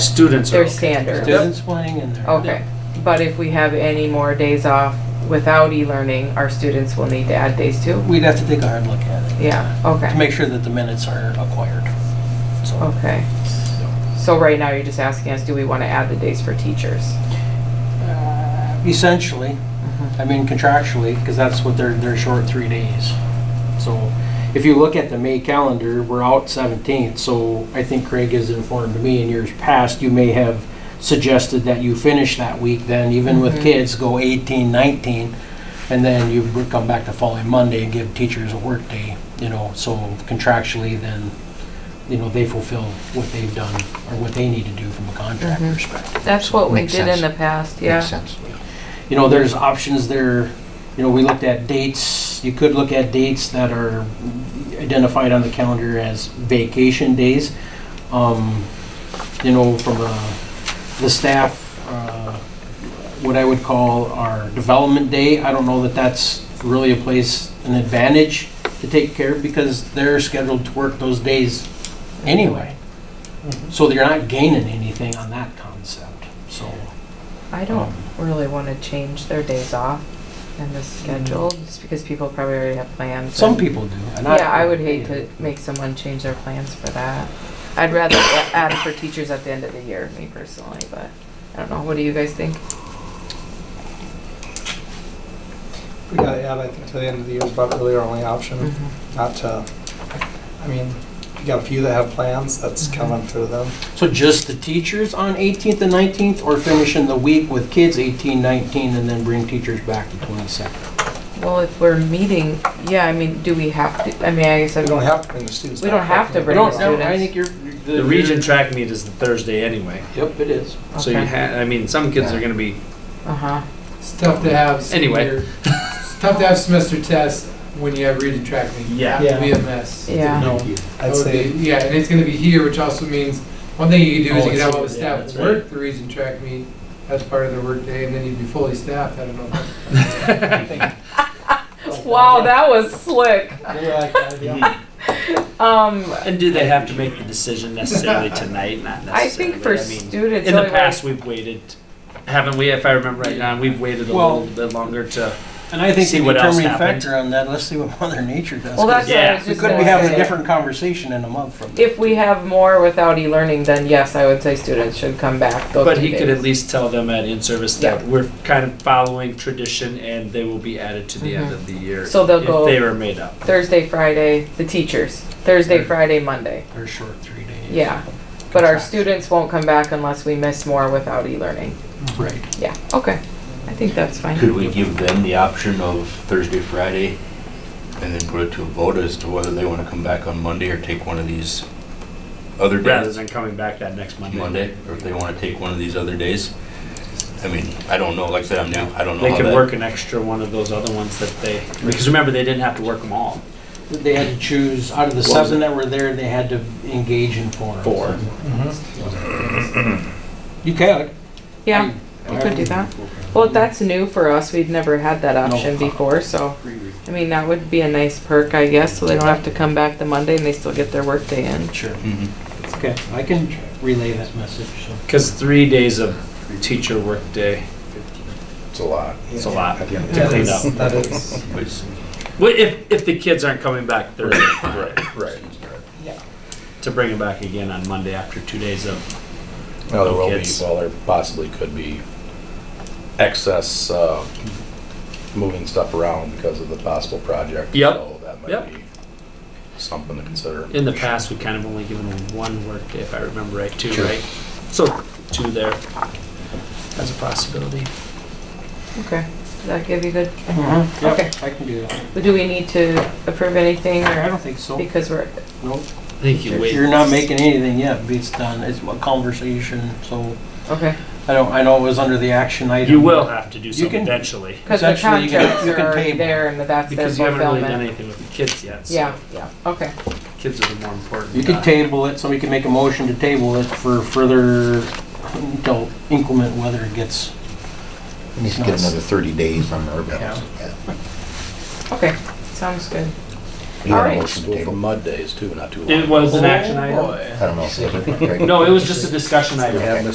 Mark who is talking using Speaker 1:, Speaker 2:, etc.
Speaker 1: Students are
Speaker 2: Their
Speaker 1: okay.
Speaker 2: standard.
Speaker 3: Students playing in there.
Speaker 2: Okay, but if we have any more days off without e-learning, our students will need to add days too?
Speaker 3: We'd have to take a hard look at it
Speaker 2: Yeah,
Speaker 3: to
Speaker 2: okay,
Speaker 3: make sure that the minutes are acquired. So
Speaker 2: okay. So right now, you're just asking us, do we want to add the days for teachers?
Speaker 3: uh, essentially, I mean contractually, because that's what they're, they're short three days. So if you look at the May calendar, we're out 17th, so I think Craig has informed me in years past, you may have suggested that you finish that week then, even with
Speaker 2: Mhm.
Speaker 3: kids, go 18, 19, and then you would come back the following Monday and give teachers a work day, you know, so contractually then, you know, they fulfill what they've done or what they need to do from a contract
Speaker 2: Mhm.
Speaker 3: perspective
Speaker 2: That's what we
Speaker 4: Makes
Speaker 2: did in
Speaker 4: sense.
Speaker 2: the past,
Speaker 4: Makes
Speaker 2: yeah.
Speaker 4: sense.
Speaker 3: you know, there's options there. You know, we looked at dates, you could look at dates that are identified on the calendar as vacation days. Um, You know, from uh, the staff, uh, what I would call our development day, I don't know that that's really a place, an advantage to take care of because they're scheduled to work those days anyway. So they're not gaining anything on that concept, so. um,
Speaker 2: I don't really want to change their days off in the schedule, just because people probably already have plans.
Speaker 3: Some
Speaker 2: and-
Speaker 3: people do. and
Speaker 2: Yeah, I would hate to make someone change their plans for that. I'd rather a- add it for teachers at the end of the year, me personally, but I don't know. What do you guys think?
Speaker 5: We gotta add, I think, to the end of the year is about really our only
Speaker 2: Mm.
Speaker 5: option, not to, I mean, you got a few that have plans, that's
Speaker 2: Mm-hmm.
Speaker 5: coming through them.
Speaker 3: So just the teachers on 18th and 19th, or finishing the week with kids 18, 19, and then bring teachers back to 22nd?
Speaker 2: Well, if we're meeting, yeah, I mean, do we have to, I mean, I guess,
Speaker 5: We don't
Speaker 2: I'm-
Speaker 5: have to bring the students
Speaker 2: We
Speaker 5: back.
Speaker 2: don't have to
Speaker 3: I
Speaker 2: bring
Speaker 3: don't
Speaker 2: the
Speaker 3: know, I
Speaker 2: students.
Speaker 3: think you're.
Speaker 1: The region track meet is the Thursday anyway,
Speaker 3: Yep, it is.
Speaker 1: so you
Speaker 2: Okay.
Speaker 1: had, I mean, some kids are gonna be,
Speaker 2: uh-huh,
Speaker 6: It's tough to have.
Speaker 1: Anyway.
Speaker 6: semester- It's tough to have semester tests when you have reading track meet.
Speaker 1: Yeah.
Speaker 6: That would be a mess.
Speaker 2: yeah.
Speaker 5: No,
Speaker 6: That
Speaker 5: I'd
Speaker 6: would
Speaker 5: say,
Speaker 6: be- Yeah, and it's gonna be here, which also means, one thing you could do is
Speaker 1: Oh,
Speaker 6: you could
Speaker 1: it's
Speaker 6: have all the
Speaker 1: here, yeah,
Speaker 6: staff
Speaker 1: that's
Speaker 6: work the reading track meet as part of their workday, and then you'd be fully staffed, I don't know.
Speaker 2: Wow, that was slick.
Speaker 5: really like that idea.
Speaker 2: Um,
Speaker 1: and do they have to make the decision necessarily tonight, not
Speaker 2: I
Speaker 1: necessarily?
Speaker 2: think for
Speaker 1: mean,
Speaker 2: students.
Speaker 1: In the
Speaker 2: only way-
Speaker 1: past, we've waited, haven't we, if I remember right now, we've waited a
Speaker 3: Well-
Speaker 1: little bit longer to,
Speaker 3: And I think
Speaker 1: See
Speaker 3: the
Speaker 1: what else
Speaker 3: determining
Speaker 1: happened.
Speaker 3: factor on that, let's see what Mother Nature does.
Speaker 2: Well, that's
Speaker 3: 'cause
Speaker 2: what I
Speaker 1: Yeah.
Speaker 2: was
Speaker 3: We
Speaker 2: just
Speaker 3: could
Speaker 2: gonna
Speaker 3: be having a
Speaker 2: say.
Speaker 3: different conversation in a month from now.
Speaker 2: If we have more without e-learning, then yes, I would say students should come back. those
Speaker 1: but
Speaker 2: two
Speaker 1: he could
Speaker 2: days.
Speaker 1: at least tell them at in-service that we're kind of following tradition and they will be added to the end
Speaker 2: Mhm.
Speaker 1: of the year.
Speaker 2: So they'll go-
Speaker 1: If they were made up.
Speaker 2: Thursday, Friday, the teachers, Thursday, Friday, Monday,
Speaker 3: They're short three days.
Speaker 2: yeah. But our
Speaker 3: Contract.
Speaker 2: students won't come back unless we miss more without e-learning.
Speaker 3: Right.
Speaker 2: Yeah, okay. I think that's
Speaker 7: Could
Speaker 2: fine.
Speaker 7: we give them the option of Thursday, Friday, and then put it to a vote as to whether they want to come back on Monday or take one of these other
Speaker 1: Rather
Speaker 7: days?
Speaker 1: than coming back that next Monday.
Speaker 7: Monday, or if they want to take one of these other days? I mean, I don't know, like I said, I'm new, I don't know
Speaker 1: They
Speaker 7: how
Speaker 1: could
Speaker 7: that-
Speaker 1: work an extra one of those other ones that they, because remember, they didn't have to work them all.
Speaker 3: They had to choose, out of the
Speaker 7: What was
Speaker 3: seven
Speaker 7: it?
Speaker 3: that were there, they had to engage in four. Mm-hmm.
Speaker 1: Four.
Speaker 3: You could.
Speaker 2: Yeah, we could do that. Well, that's new for us. We'd never had that option before, so, I mean, that would be a nice perk, I guess, so they don't have to come back the Monday and they still get their workday in.
Speaker 3: Sure.
Speaker 7: Mhm.
Speaker 3: Okay, I can relay that message, so.
Speaker 1: Because three days of teacher workday,
Speaker 8: It's a lot.
Speaker 1: it's a lot to
Speaker 5: That
Speaker 1: clean up.
Speaker 5: is, that is,
Speaker 7: But it's-
Speaker 1: Well, if, if the kids aren't coming back Thursday,
Speaker 8: Right, right.
Speaker 1: to bring them back again on Monday after two days of,
Speaker 8: No, there will be,
Speaker 1: Kids.
Speaker 8: well, there possibly could be excess, uh, moving stuff around because of the possible project.
Speaker 1: Yep,
Speaker 8: So that
Speaker 1: yep.
Speaker 8: might be something to consider.
Speaker 1: in the past, we kind of only given them one workday, if I remember right, two,
Speaker 8: Sure.
Speaker 1: right? So two there as a possibility.
Speaker 2: Okay, does that give you good?
Speaker 3: Yep,
Speaker 2: Mm-hmm. Okay.
Speaker 3: I can do that.
Speaker 2: Do we need to approve anything
Speaker 3: I
Speaker 2: or,
Speaker 3: don't think so.
Speaker 2: because we're,
Speaker 3: No,
Speaker 1: I think you wait.
Speaker 3: you're not making anything yet, but it's done, it's a conversation, so,
Speaker 2: okay.
Speaker 3: I don't, I know it was under the action item.
Speaker 1: You will have to do
Speaker 3: You
Speaker 1: something
Speaker 3: can-
Speaker 1: eventually,
Speaker 2: Because the
Speaker 3: Essentially, you can-
Speaker 2: contracts
Speaker 3: you
Speaker 2: are
Speaker 3: can
Speaker 2: already
Speaker 3: table.
Speaker 2: there and that's their
Speaker 1: because you haven't really done
Speaker 2: fulfillment.
Speaker 1: anything with the kids yet. so
Speaker 2: Yeah, yeah, okay.
Speaker 1: Kids are the more important.
Speaker 3: You could
Speaker 1: uh,
Speaker 3: table it, somebody can make a motion to table it for further, until inclement weather gets,
Speaker 4: We need to get another 30 days on our balance.
Speaker 2: Okay, sounds good.
Speaker 4: You want a
Speaker 2: Alright.
Speaker 4: motion to
Speaker 8: School for
Speaker 4: table?
Speaker 8: mud days too, not too long.
Speaker 1: It was an action item.
Speaker 4: I don't know.
Speaker 1: No, it was just a discussion item.
Speaker 4: Yeah,